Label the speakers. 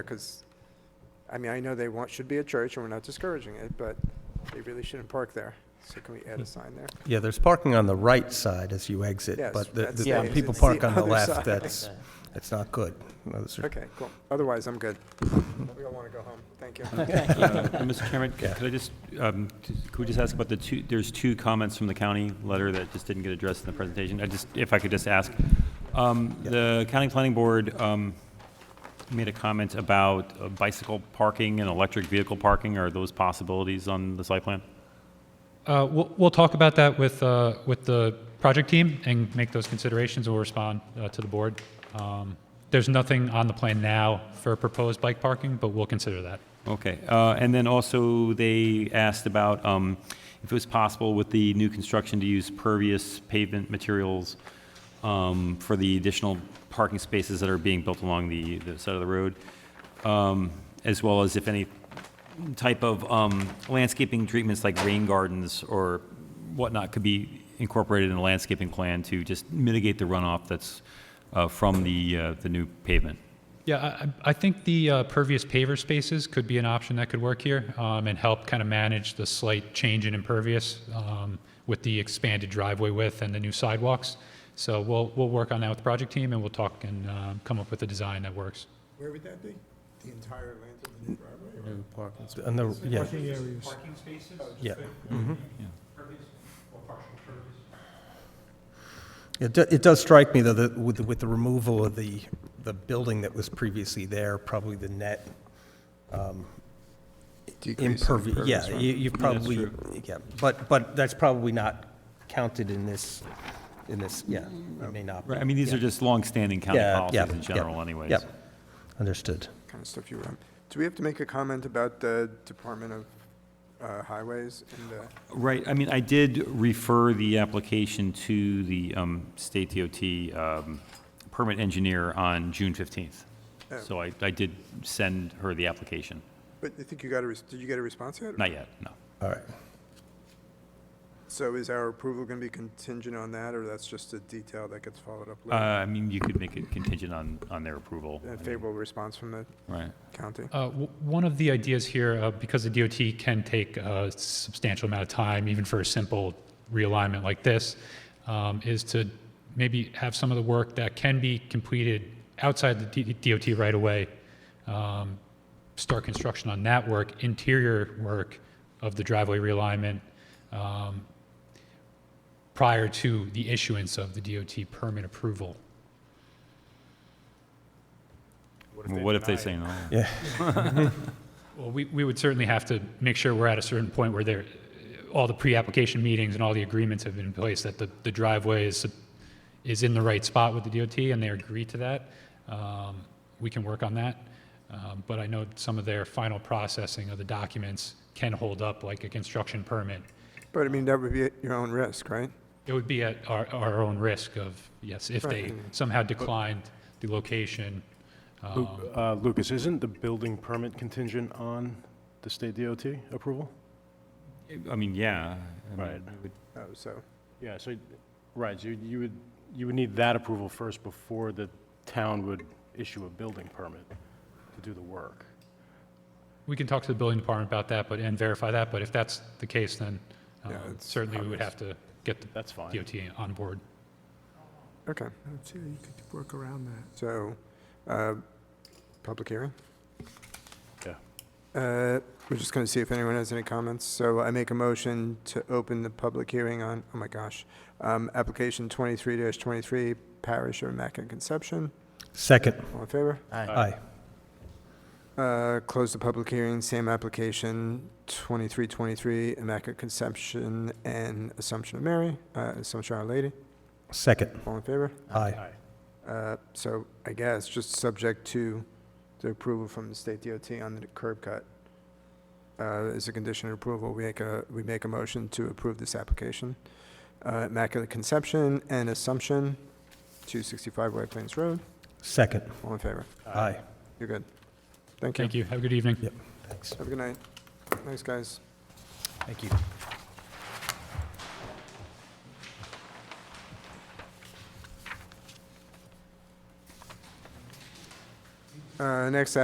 Speaker 1: because, I mean, I know they want, should be a church, and we're not discouraging it, but they really shouldn't park there. So can we add a sign there?
Speaker 2: Yeah, there's parking on the right side as you exit,
Speaker 1: Yes,
Speaker 2: but the-
Speaker 1: that's
Speaker 2: the-
Speaker 1: the
Speaker 2: when people
Speaker 1: exit.
Speaker 2: park
Speaker 1: The
Speaker 2: on the
Speaker 1: other
Speaker 2: left,
Speaker 1: side.
Speaker 2: that's, that's not good. Those are-
Speaker 1: Okay, cool. Otherwise, I'm good. We all want to go home. Thank you.
Speaker 3: Uh, Mr. Chairman, c- could I just, um, t- could we just ask about the two, there's two comments from the county letter that just didn't get addressed in the presentation. I just, if I could just ask. Um, The county planning board um, made a comment about uh, bicycle parking and electric vehicle parking. Are those possibilities on the site plan?
Speaker 4: Uh, We'll, we'll talk about that with, uh, with the project team and make those considerations. We'll respond uh, to the board. Um, There's nothing on the plan now for proposed bike parking, but we'll consider that.
Speaker 3: Okay, uh, and then also they asked about um, if it was possible with the new construction to use pervious pavement materials um, for the additional parking spaces that are being built along the, the side of the road, um, as well as if any type of um, landscaping treatments like rain gardens or whatnot could be incorporated in a landscaping plan to just mitigate the runoff that's uh, from the, uh, the new pavement.
Speaker 4: Yeah, I- I, I think the uh, pervious paver spaces could be an option that could work here um, and help kind of manage the slight change in impervious um, with the expanded driveway width and the new sidewalks. So we'll, we'll work on that with the project team and we'll talk and uh, come up with a design that works.
Speaker 5: Where would that be? The entire length of the new driveway? or-
Speaker 2: On the, yeah,
Speaker 4: Parking spaces?
Speaker 2: yeah. Mm-hmm.
Speaker 4: Pervious or partial pervious?
Speaker 2: It, do- it does strike me, though, that with, the- with the removal of the, the building that was previously there, probably the net impervious, yeah, you, you probably, yeah, but, but that's probably not counted in this, in this, yeah, it may not. be.
Speaker 3: Right, I mean, these are just longstanding county
Speaker 2: Yeah, yeah,
Speaker 3: policies in
Speaker 2: yeah,
Speaker 3: general anyways.
Speaker 2: Yep, understood.
Speaker 1: Kind of stuff you run. Do we have to make a comment about the Department of uh, Highways and the?
Speaker 3: Right, I mean, I did refer the application to the um, state DOT um, permit engineer on June 15th. So I, I did send her the application.
Speaker 1: But I think you got a, res- did you get a response yet?
Speaker 3: Not yet, no.
Speaker 2: All right.
Speaker 1: So is our approval going to be contingent on that, or that's just a detail that gets followed up
Speaker 3: Uh,
Speaker 1: later?
Speaker 3: I mean, you could make it contingent on, on their approval.
Speaker 1: A
Speaker 3: I mean,
Speaker 1: favorable response from the
Speaker 3: Right.
Speaker 1: county?
Speaker 4: Uh, w- One of the ideas here, uh, because the DOT can take a substantial amount of time, even for a simple realignment like this, um, is to maybe have some of the work that can be completed outside the D- DOT right away, um, start construction on that work, interior work of the driveway realignment, um, prior to the issuance of the DOT permit approval.
Speaker 3: Well, What if they say no?
Speaker 4: Well, we, we would certainly have to make sure we're at a certain point where there, all the pre-application meetings and all the agreements have been in place, that the, the driveway is, is in the right spot with the DOT, and they agree to that. Um, We can work on that, Um, but I know some of their final processing of the documents can hold up, like a construction permit.
Speaker 1: But I mean, that would be at your own risk, right?
Speaker 4: It would be at our, our own risk of, yes, if they
Speaker 1: Right.
Speaker 4: somehow declined the location.
Speaker 6: Lu- uh, Lucas, isn't the building permit contingent on the state DOT approval?
Speaker 3: I mean, yeah. I mean,
Speaker 6: Right.
Speaker 3: it would-
Speaker 1: Oh, so,
Speaker 6: Yeah, so, right, you, you would, you would need that approval first before the town would issue a building permit to do the work.
Speaker 4: We can talk to the building department about that, but, and verify that, but if that's the case, then um,
Speaker 1: Yeah, it's
Speaker 4: certainly we would
Speaker 1: obvious.
Speaker 4: have to get the
Speaker 6: That's fine.
Speaker 4: DOT on board.
Speaker 1: okay,
Speaker 5: I don't see how you could work around that.
Speaker 1: so, uh, public hearing?
Speaker 6: Yeah.
Speaker 1: Uh, We're just going to see if anyone has any comments. So I make a motion to open the public hearing on, oh my gosh, um, application 23-23, Parish of Immaculate Conception.
Speaker 2: Second,
Speaker 1: All in favor?
Speaker 2: aye.
Speaker 1: Uh, Close the public hearing, same application, 2323 Immaculate Conception and Assumption of Mary, uh, Assumption of Our Lady.
Speaker 2: Second,
Speaker 1: All in favor?
Speaker 2: aye.
Speaker 1: Uh, So I guess just subject to the approval from the state DOT on the curb cut. Uh, As a condition of approval, we make a, we make a motion to approve this application. Uh, Immaculate Conception and Assumption, 265 White Plains Road.
Speaker 2: Second,
Speaker 1: All in favor?
Speaker 2: aye.
Speaker 1: You're good. Thank you.
Speaker 4: Thank you. Have a good evening.
Speaker 2: Yep, thanks.
Speaker 1: Have a good night. Thanks, guys.
Speaker 2: Thank you.
Speaker 1: Uh, Next